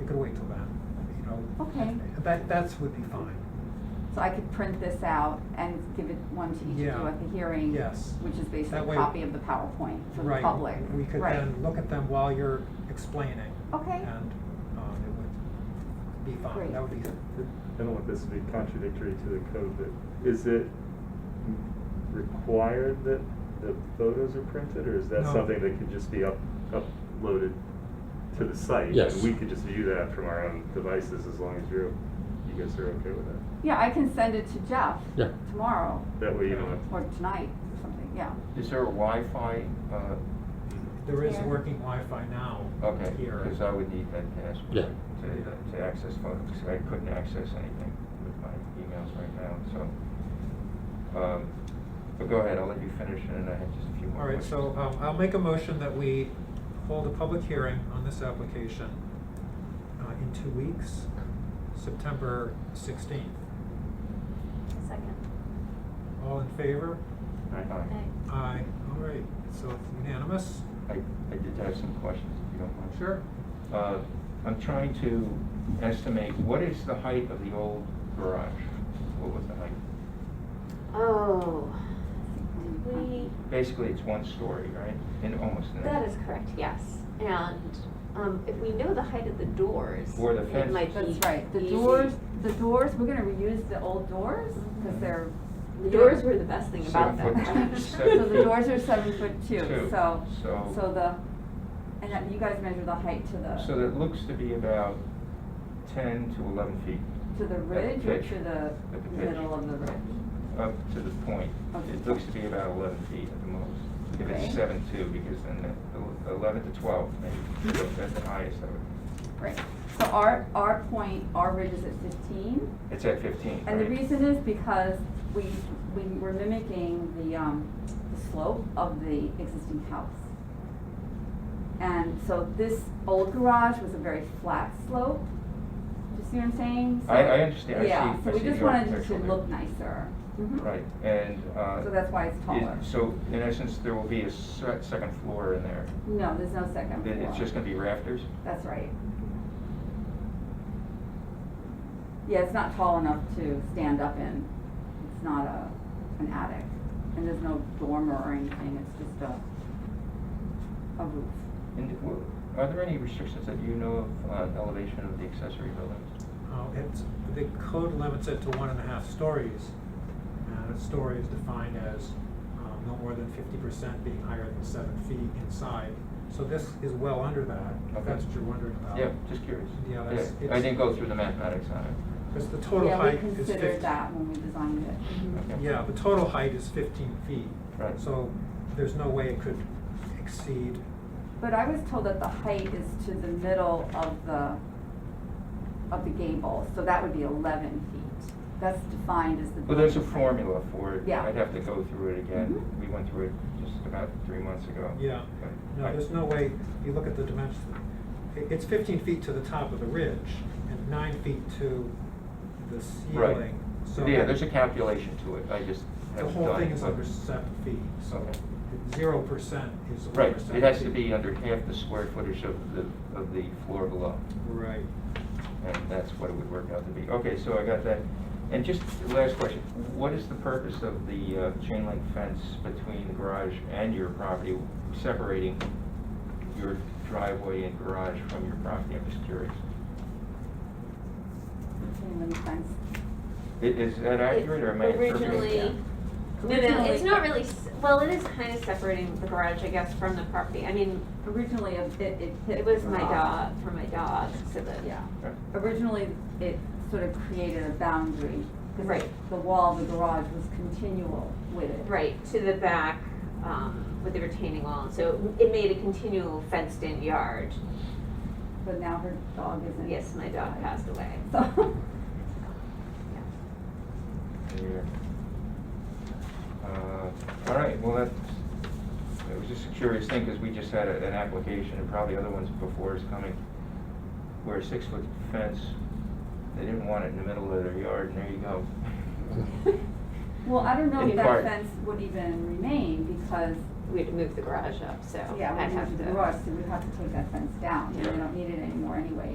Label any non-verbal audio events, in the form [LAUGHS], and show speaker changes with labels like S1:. S1: It could wait till then, you know.
S2: Okay.
S1: That, that's would be fine.
S2: So I could print this out and give it one to each of
S1: Yeah.
S2: you at the hearing?
S1: Yes.
S2: Which is
S1: That
S2: basically
S1: way-
S2: a copy of the PowerPoint for the
S1: Right.
S2: public?
S1: We could
S2: Right.
S1: then look at them while you're explaining.
S2: Okay.
S1: And, um, it would be fine.
S2: Great.
S1: That would be,
S3: I don't want this to be contradictory to the code, but is it required that the photos are printed, or is that
S1: No.
S3: something that could just be up, uploaded to the site?
S4: Yes.
S3: And we could just view that from our own devices as long as you're, you guys are okay with that?
S2: Yeah, I can send it to Jeff
S4: Yeah.
S2: tomorrow
S3: That way you don't have to.
S2: or tonight or something, yeah.
S5: Is there a Wi-Fi? uh,
S1: there is
S2: Here.
S1: working Wi-Fi now
S5: Okay,
S1: here.
S5: because I would need that password
S4: Yeah.
S5: to, to access photos, 'cause I couldn't access anything with my emails right now, so. um, But go ahead, I'll let you finish, and then I have just a few
S1: All
S5: more
S1: right,
S5: questions.
S1: so um, I'll make a motion that we hold a public hearing on this application uh, in two weeks, September 16th.
S6: Second.
S1: All in favor?
S5: Hi.
S6: Okay.
S1: Aye. All right, so it's unanimous?
S5: I, I did have some questions, if you don't mind.
S1: Sure.
S5: Uh, I'm trying to estimate, what is the height of the old garage? What was the height?
S6: Oh, we,
S5: Basically, it's one story, right? In almost. in-
S6: that is correct, yes. And um, if we know the height of the doors,
S5: Or the
S6: it
S5: fence.
S6: might be easy.
S2: That's right. The doors, the doors, we're gonna reuse the old doors
S6: Mm-hmm.
S2: because
S5: Mhm.
S2: they're.
S6: The doors were the best thing about
S5: Seven
S6: them.
S2: [LAUGHS]
S5: foot two.
S2: So the doors are seven foot two,
S5: Two.
S2: so,
S5: So-
S2: so the, and that, you guys measure the height to
S5: So
S2: the,
S5: that looks to be about ten to eleven feet
S2: to the ridge or
S5: pitch.
S2: to the
S5: At the pitch.
S2: middle of the ridge?
S5: up to the point.
S2: Okay.
S5: It looks to be about eleven feet at the most. If
S2: Okay.
S5: it's seven two, because then the- the eleven to twelve, maybe, that's the highest of it.
S2: Right, so our, our point, our ridge is at fifteen,
S5: It's at fifteen,
S2: and the
S5: right?
S2: reason is because we, we were mimicking the, um, the slope of the existing house. And so this old garage was a very flat slope, do you see what I'm saying? So-
S5: I- I understand. I see- I
S2: Yeah, so we
S5: see
S2: just
S5: the
S2: wanted it to
S5: architectural there.
S2: look nicer. Mhm.
S5: Right, and, uh.
S2: So that's why it's
S5: it-
S2: taller.
S5: So in essence, there will be a se- second floor in there.
S2: No, there's no second
S5: It-
S2: floor.
S5: It's just gonna be rafters?
S2: That's right. Yeah, it's not tall enough to stand up in. It's not a, an attic. And there's no dormer or anything, it's just a, a roof.
S5: And w- are there any restrictions that you know of on elevation of the accessory buildings?
S1: Uh, It's, the code limits it to one and a half stories. And a story is defined as um, no more than fifty percent being higher than seven feet inside. So this is well under that, if
S5: Okay.
S1: that's what you're wondering about.
S5: Yeah, just curious.
S1: Um, Yeah, that's-
S5: I
S1: it's-
S5: didn't go through the mathematics on it.
S1: Because the total height is
S2: Yeah, we
S1: fifty.
S2: considered that when we designed it.
S5: Okay.
S1: Yeah, the total height is fifteen feet.
S5: Right.
S1: So there's no way it could exceed,
S2: But I was told that the height is to the middle of the, of the gable, so that would be eleven feet. That's defined as the.
S5: Well, there's a
S2: building height.
S5: formula for it.
S2: Yeah.
S5: I'd have to go through it again.
S2: Mhm.
S5: We went through it just about three months ago.
S1: yeah.
S5: But
S1: No,
S5: I-
S1: there's no way, you look at the dimensions, it, it's fifteen feet to the top of the ridge and nine feet to the
S5: Right.
S1: ceiling. So
S5: Yeah, there's a calculation to it. I just
S1: The
S5: haven't
S1: whole
S5: done
S1: thing
S5: it,
S1: is
S5: but-
S1: over seven feet, so
S5: Okay.
S1: zero percent is over
S5: Right,
S1: seven feet.
S5: it has to be uh, under half the square footage of the, of the floor below.
S1: Right.
S5: And that's what it would work out to be. Okay, so I got that. And just the last question, what is the purpose of the uh, chain link fence between the garage and your property, separating your driveway and garage from your property? I'm just curious.
S2: Chain link fence.
S5: I- Is that accurate or am I interpreting?
S6: Originally, no, no,
S2: Originally-
S6: it's not really, s- well, it is kind of separating the garage, I guess, from the property. I mean,
S2: Originally, it, it it hit.
S6: it was
S2: the
S6: my
S2: rock.
S6: dog, for my dog, so that.
S2: Ah. Yeah.
S5: Okay.
S2: Originally, it sort of created a boundary. 'cause
S6: Right.
S2: The wall of the garage was continual with it.
S6: Right, to the back, um, with the retaining wall, so it made a continual fenced-in yard.
S2: But now her dog isn't.
S6: Yes, my dog passed away.
S2: So, [LAUGHS]
S5: Yeah. Uh, All right, well, that's, it was just a curious thing, because we just had a- an application, and probably other ones before is coming, where a six-foot fence, they didn't want it in the middle of their yard, and there you go.
S6: [LAUGHS]
S2: well, I don't know
S5: Any
S2: if that
S5: part.
S2: fence would even remain because,
S6: [LAUGHS] We had to move the garage up, so
S2: yeah,
S6: I'd
S2: we
S6: have
S2: moved
S6: to.
S2: the garage, so we'd have to take that fence down. and We
S5: Yeah.
S2: don't need it anymore anyway.